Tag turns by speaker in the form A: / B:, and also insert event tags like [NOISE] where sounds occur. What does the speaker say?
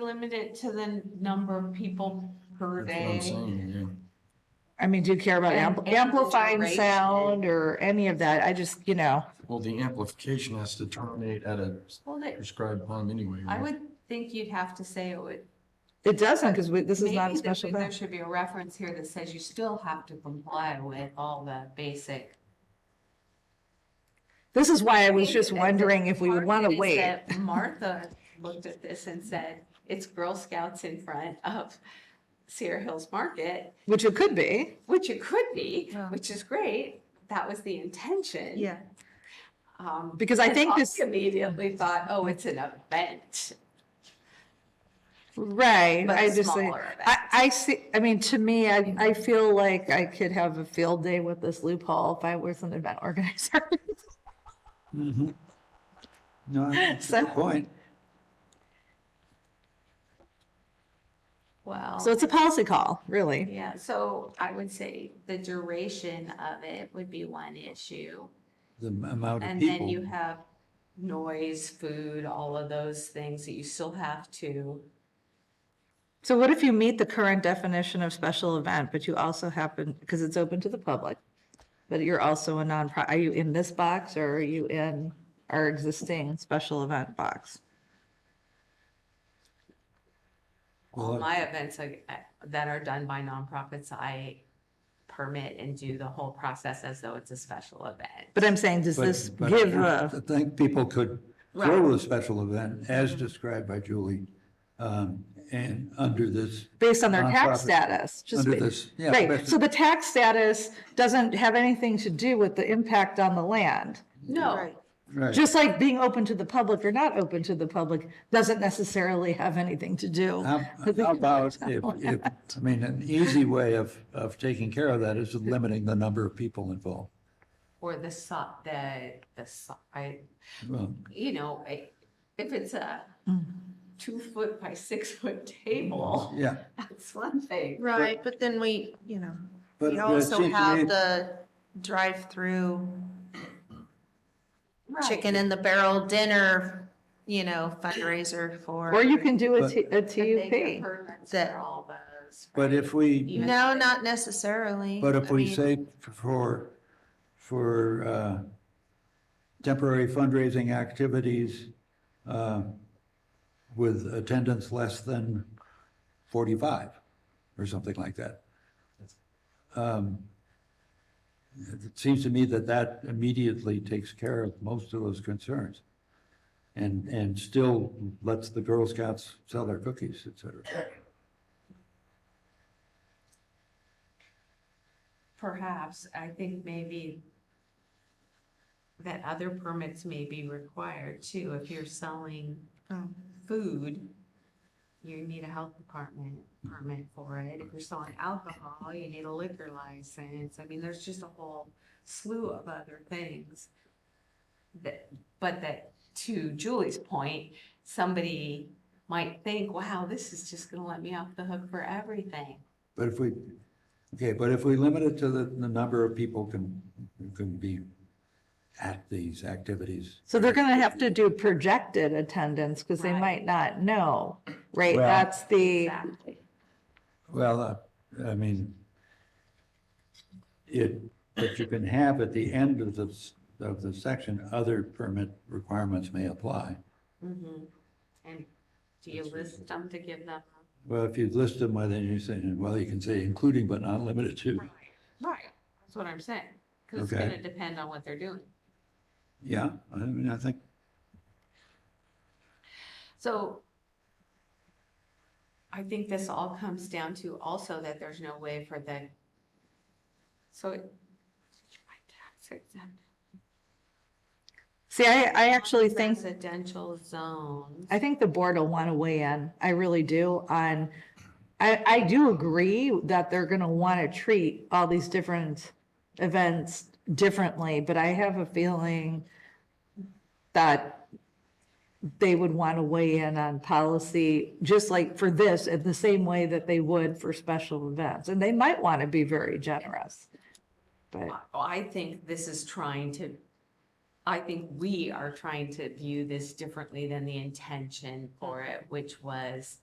A: limit it to the number of people per
B: That's what I'm
A: day?
B: saying,
C: I mean, do you care about
A: And
C: ampl-
A: amplifier
C: amplifying
A: rates
C: sound or any of that? I just, you know,
B: yeah. Well, the amplification has to terminate at a
A: Well, that-
B: prescribed time anyway.
A: I
B: right?
A: would think you'd have to say it would.
C: it doesn't because this is not a
A: maybe there-
C: special
A: There
C: event.
A: should be a reference here that says you still have to comply with all the basic.
C: This is why I
A: I
C: was
A: think
C: just
A: that the
C: wondering if we would
A: part
C: want
A: of it
C: to
A: is
C: wait.
A: that Martha looked at this and said, it's Girl Scouts in front of Sierra Hills Market,
C: Which it could be.
A: which it could be,
C: Yeah.
A: which is great. That was the intention. Um,
C: Because I
A: and
C: think
A: I
C: this-
A: Immediately thought, oh, it's an event,
C: Right.
A: but
C: I
A: a
C: just,
A: smaller
C: I,
A: event.
C: I see, I mean, to me, I, I feel like I could have a field day with this loophole if I was an event organizer.
D: Mhm. No, that's a
C: So-
D: good point.
A: Well,
C: So it's a policy call, really.
A: yeah, so I would say the duration of it would be one issue.
D: The m- amount of
A: And then you
D: people.
A: have noise, food, all of those things that you still have to.
C: So what if you meet the current definition of special event, but you also happen, because it's open to the public, but you're also a nonprofit, are you in this box or are you in our existing special event box?
A: All
D: Well,
A: my events like, I- that are done by nonprofits, I permit and do the whole process as though it's a special event.
C: But I'm saying, does
D: but-
C: this
D: but
C: give
D: I
C: a,
D: think people could throw a special event as described by Julie, um, and under this,
C: based on their tax
D: nonprofit
C: status? just
D: under
C: ba-
D: this, yeah.
C: Right,
D: basic-
C: so the tax status doesn't have anything to do with the impact on the land.
E: Oh,
A: No,
D: Right.
C: Just like being open to the public or not open to the public doesn't necessarily have anything to do.
D: How how about if, if, I mean, an easy way of, of taking care of that is limiting the number of people involved.
A: or the, so- the, the, so- I,
D: Well,
A: you know, I- if it's a two foot by six foot table, [LAUGHS]
D: Yeah,
A: that's one thing.
E: Right, but then we, you know,
D: but
E: we
D: it
E: also
D: seems to me-
E: have the drive-through chicken in the barrel dinner, you know, fundraiser for.
C: Or you can do a
D: But-
C: T- a TUP.
E: That-
A: For all those.
D: But if we,
A: You-
E: No, not necessarily.
D: but if
E: I
D: we
E: mean,
D: say for, for uh, temporary fundraising activities uh, with attendance less than 45 or something like that. um, It seems to me that that immediately takes care of most of those concerns and, and still lets the Girl Scouts sell their cookies, et cetera.
A: Perhaps, I think maybe that other permits may be required too. If you're selling
E: oh,
A: food, you need a health department permit for it. If you're selling alcohol, you need a liquor license. I mean, there's just a whole slew of other things. That, but that, to Julie's point, somebody might think, wow, this is just gonna let me off the hook for everything.
D: But if we, okay, but if we limit it to the, the number of people can, who can be at these activities.
C: So they're gonna have to do projected attendance because they
A: Right.
C: might not know, right?
D: Well-
C: That's the,
A: Exactly.
D: Well, uh, I mean, it, but you can have at the end of the, of the section, other permit requirements may apply.
A: Mm-hmm. And do you list them to give them?
D: Well, if you list them, well, then you say, well, you can say including but not limited to,
A: Right. That's what I'm saying, because it's
D: Okay.
A: gonna depend on what they're doing.
D: yeah, I mean, I think,
A: So I think this all comes down to also that there's no way for the, so it. my tax exempt-
C: see, I, I actually think,
A: Residential zones.
C: I think the board will want to weigh in. I really do on, I, I do agree that they're gonna want to treat all these different events differently, but I have a feeling that they would want to weigh in on policy, just like for this, in the same way that they would for special events. And they might want to be very generous. But
A: I- I think this is trying to, I think we are trying to view this differently than the intention for it, which was